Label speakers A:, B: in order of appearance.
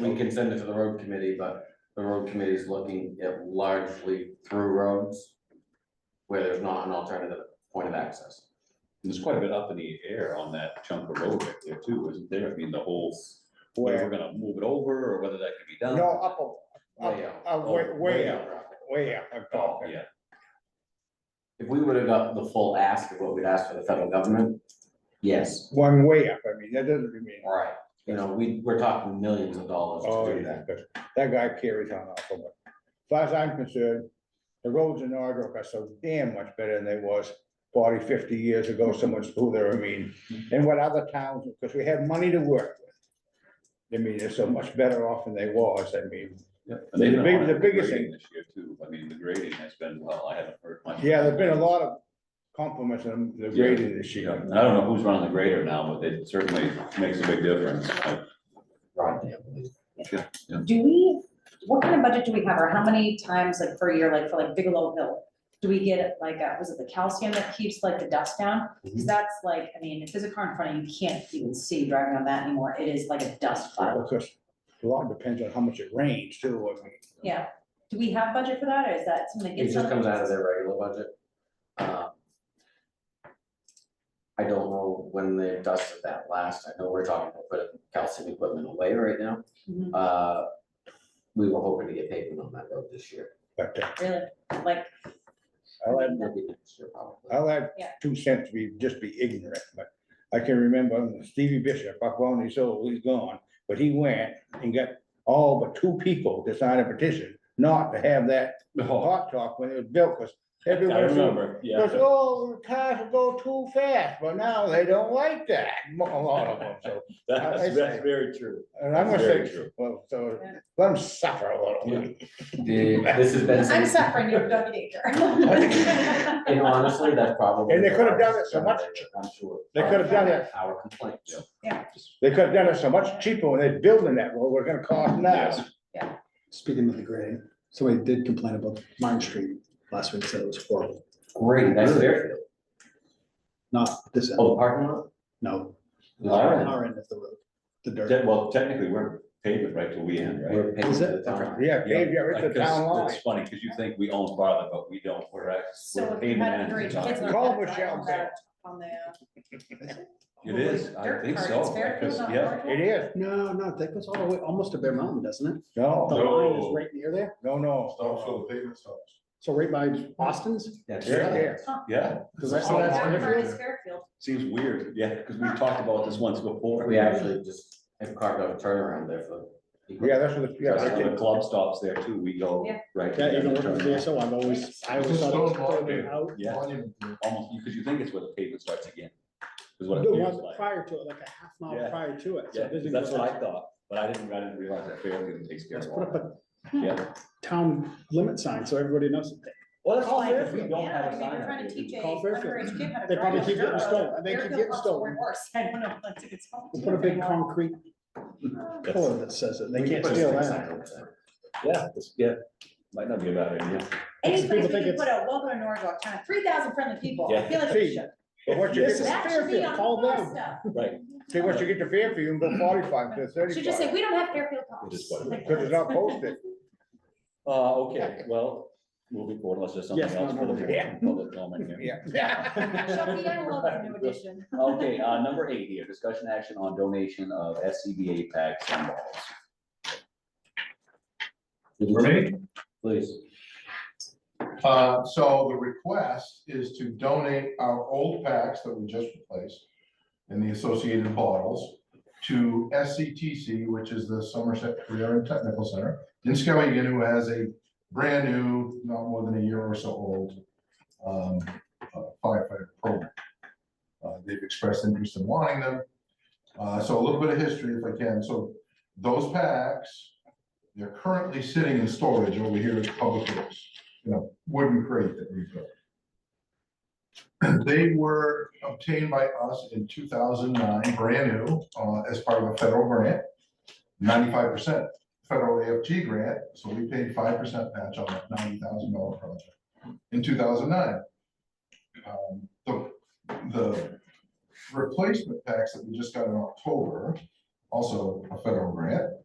A: We can send it to the road committee, but the road committee is looking at largely through roads where there's not an alternative point of access.
B: There's quite a bit up in the air on that chunk of road right there too, isn't there? I mean, the whole, whether we're
C: Where,
B: gonna move it over or whether that can be done.
C: no, up, a-
A: Way
C: up,
A: out.
C: uh, way, way
B: Oh, way
C: up, way up, I'm
B: Oh,
C: talking.
B: yeah,
A: If we would have got the full ask of what we'd asked for the federal government, yes,
C: One way up, I mean, that doesn't mean.
A: right. You know, we, we're talking millions of dollars
C: Oh,
A: to do
C: yeah,
A: that.
C: 'cause that guy carries on awful much. As far as I'm concerned, the roads in Norwood are so damn much better than they was 40, 50 years ago, so much smoother, I mean, and what other towns, because we have money to work with. I mean, they're so much better off than they was, I mean,
B: yeah. And they've
C: The
B: been
C: big-
B: on
C: the
B: it
C: biggest
B: grading This year too. I mean, the grading has been, well, I haven't heard much.
C: yeah, there's been a lot of compliments on the
B: Yeah.
C: grading this
B: Yeah,
C: year.
B: and I don't know who's running the grader now, but it certainly makes a big difference. I-
A: Right.
D: Do we, what kind of budget do we have, or how many times like per year, like for like Bigelow Hill? Do we get like, uh, was it the calcium that keeps like the dust down?
B: Mm-hmm.
D: Cause that's like, I mean, if there's a car in front of you, you can't even see driving on that anymore, it is like a dust cloud.
C: Because a lot depends on how much it rains too, I mean.
D: Yeah, do we have budget for that, or is that something that
A: It
D: gets
A: just
D: done?
A: comes out of their regular budget. Uh, I don't know when they dusted that last. I know we're talking about putting calcium equipment away right now.
D: Mhm,
A: Uh, we were hoping to get pavement on that road this year.
C: But uh,
D: Really, like,
C: I'll add
A: That'd be next year probably.
C: I'll add
D: Yeah.
C: two cents, be, just be ignorant, but I can remember Stevie Bishop, up on his old, he's gone, but he went and got all but two people to sign a petition not to have that hot talk when it was built, because
B: I
C: everyone said,
B: remember, yeah.
C: because, oh, cars go too fast, but now they don't like that, mo- a lot of them, so. I- I
B: That's,
C: say-
B: that's very true.
C: And I'm gonna
B: Very
C: say,
B: true.
C: well, so,
D: Yeah.
C: let them suffer a little bit.
A: The- this has been.
D: I'm suffering, you're doggy daycare.
A: And honestly, that's probably.
C: And they could have done it so much-
A: I'm sure.
C: They could have done it.
A: Our complaint.
C: They could have done it so much cheaper when they're building that road, we're gonna cost now.
B: Yes.
E: Speaking of the grade, somebody did complain about Martin Street last week, said it was horrible,
A: Great, that's Fairfield.
E: not this end,
A: Oh, the parking lot?
E: no.
A: Our end.
E: Our end of the road, the dirt.
B: Te- Well, technically, we're paving right till we end, right?
A: We're paying
E: Is
A: for
E: it?
A: the time.
C: Yeah, paved, yeah, it's a
B: Because
C: town line.
B: It's funny, because you think we own Bartlett, but we don't, we're actually.
D: So if you
B: paving
D: had
B: and
D: underage kids.
B: it's
D: not
C: Call
D: gonna drive
C: Michelle
D: on
C: there.
D: the- On the.
B: It is, I
D: dirt
B: think
D: cart.
B: so,
D: It's Fairfield,
B: because,
D: not
B: yeah,
D: Bartlett?
C: It is,
E: No, no, that goes all the way, almost to Bear Mountain, doesn't it? The
C: no,
E: line is
B: No.
E: right near there,
C: no, no.
E: so right by Austin's,
A: That's
C: Yeah,
A: right.
C: yeah.
B: yeah,
E: because I saw that's
D: Yeah,
E: Fairfield.
D: it's Oh, Fairfield.
B: seems weird, yeah, because we've talked about this once before.
A: We actually just have carved out a turnaround there for.
C: Yeah, that's what, the- yeah,
B: Because
C: that's
B: when the
C: it.
B: club stops there too, we go
D: Yeah.
B: right. to
E: That
B: the
E: even
B: other
E: working for
B: turn.
E: VSO, I've always, I always thought it was totally out.
B: Yeah, almost, because you think it's where the pavement starts again, is what it
E: The
B: feels
E: one
B: like.
E: prior to it, like a half mile
B: Yeah.
E: prior to it. so
B: Yeah,
E: it doesn't
B: that's
E: go
B: what I
E: that-
B: thought, but I didn't, I didn't realize that Fairfield takes care
E: Let's
B: of
E: put up
B: all.
E: a
D: Hmm.
B: Yeah,
E: town limit sign, so everybody knows,
B: well, that's
D: Well,
B: all
D: like,
B: Fairfield, we don't
D: yeah,
B: have
D: I
B: a
D: mean,
B: sign.
D: We're
B: up
D: trying to
B: there.
D: teach a
E: Call Fairfield.
D: underage kid how to drive.
E: They probably
D: on
E: keep
D: the
E: getting
D: road.
E: stolen. They keep
D: Fairfield
E: getting
D: cops
E: stolen.
D: were worse. I don't know, if that's if it's. called
E: we'll put a big
D: anymore.
E: concrete pillar that says it, they
A: We
E: can't
A: put a
E: steal
A: stick
E: that.
A: sign over there.
B: Yeah, this- yeah, might not be a bad idea.
D: Any place we
E: People think
D: can
E: it's-
D: put a welcome to Norwalk town, three thousand friendly people, I
B: Yeah.
D: feel like we
C: See,
D: should.
C: But once you get,
E: Yes.
C: to-
D: That should be
E: Fairfield,
D: on the
E: call
D: bus
E: them.
D: stuff.
B: Right.
C: see, once you get to Fairfield, you can go forty-five to
D: Should just say,
C: thirty-five,
D: we don't have Fairfield
B: It is
D: cops.
B: what it
D: Like,
C: because it's not posted.
B: Uh, okay, well, moving forward, unless there's something
E: Yes,
B: else
E: no,
B: for
E: no,
B: the
E: no.
B: board and public comment here.
C: Yeah.
D: Shelby, I love the new edition.
B: Okay, uh, number eight here, discussion action on donation of SCBA packs and balls.
F: For me?
A: Please.
F: Uh, so the request is to donate our old packs that we just replaced and the associated bottles to SCTC, which is the Somerset Career and Technical Center in Skowhegan, who has a brand new, not more than a year or so old um, uh, firefighter program. Uh, they've expressed interest in wanting them. Uh, so a little bit of history if I can. So those packs, they're currently sitting in storage over here at Public Works you know, wooden crate that we built. They were obtained by us in two thousand nine, brand new, uh, as part of a federal grant, ninety-five percent federal AFG grant, so we paid five percent match on that ninety thousand dollar project in two thousand nine. Um, The, the replacement packs that we just got in October, also a federal grant,